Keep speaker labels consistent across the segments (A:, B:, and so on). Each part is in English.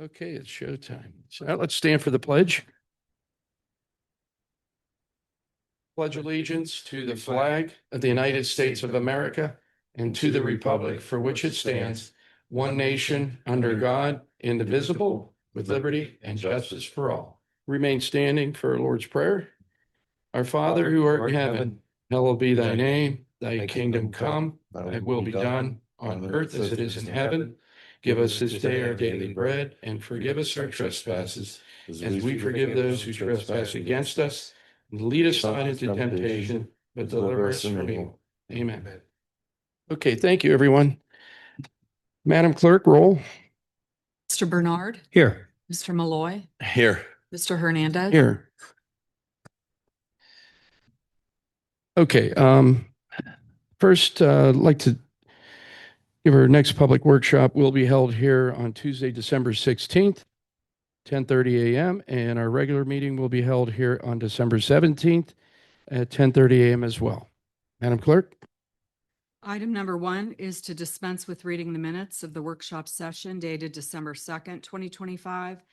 A: Okay, it's showtime. So now let's stand for the pledge. Pledge allegiance to the flag of the United States of America and to the republic for which it stands, one nation, under God, indivisible, with liberty and justice for all. Remain standing for our Lord's Prayer. Our Father who art in heaven, hallowed be thy name, thy kingdom come, thy will be done on earth as it is in heaven. Give us this day our daily bread and forgive us our trespasses as we forgive those who trespass against us. And Lead us not into temptation, but deliver us from evil. Amen. Okay, thank you, everyone. Madam Clerk, roll.
B: Mr. Bernard,
C: Here.
B: Mr. Malloy,
C: Here.
B: Mr. Hernandez.
A: Here. Okay, um, first, uh, I'd like to give our next public workshop will be held here on Tuesday, December 16th, 10:30 a.m. And our regular meeting will be held here on December 17th at 10:30 a.m. as well. Madam Clerk?
B: Item number one is to dispense with reading the minutes of the workshop session dated December second, twenty twenty-five,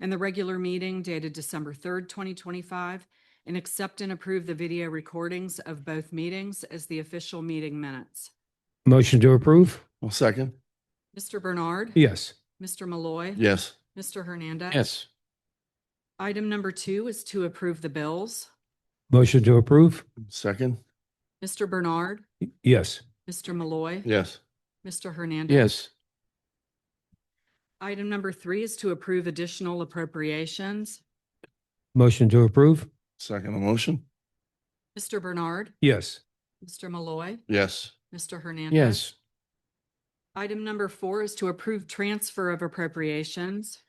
B: and the regular meeting dated December third, twenty twenty-five, and accept and approve the video recordings of both meetings as the official meeting minutes.
C: Motion to approve?
D: Well, second.
B: Mr. Bernard.
C: Yes.
B: Mr. Malloy.
D: Yes.
B: Mr. Hernandez.
A: Yes.
B: Item number two is to approve the bills.
C: Motion to approve?
D: Second.
B: Mr. Bernard.
C: Yes.
B: Mr. Malloy.
D: Yes.
B: Mr. Hernandez.
A: Yes.
B: Item number three is to approve additional appropriations.
C: Motion to approve?
D: Second motion.
B: Mr. Bernard,
C: Yes.
B: Mr. Malloy,
D: Yes.
B: Mr. Hernandez.
A: Yes.
B: Item number four is to approve transfer of appropriations.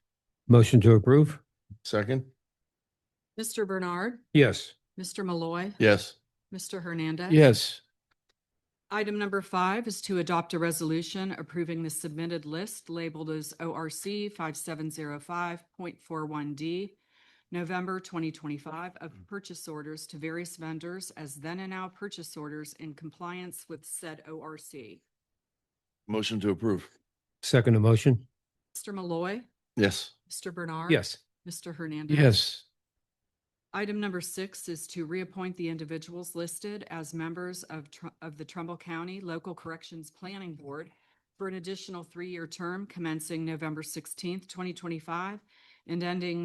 C: Motion to approve?
D: Second.
B: Mr. Bernard,
C: Yes.
B: Mr. Malloy,
D: Yes.
B: Mr. Hernandez.
A: Yes.
B: Item number five is to adopt a resolution approving the submitted list labeled as ORC 5705.41D, November 2025, of purchase orders to various vendors as then and now purchase orders in compliance with said ORC.
D: Motion to approve.
C: Second motion?
B: Mr. Malloy,
D: Yes.
B: Mr. Bernard.
C: Yes.
B: Mr. Hernandez.
A: Yes.
B: Item number six is to reappoint the individuals listed as members of, Tr- of the Trumbull County Local Corrections Planning Board for an additional three-year term commencing November sixteenth, twenty twenty-five and ending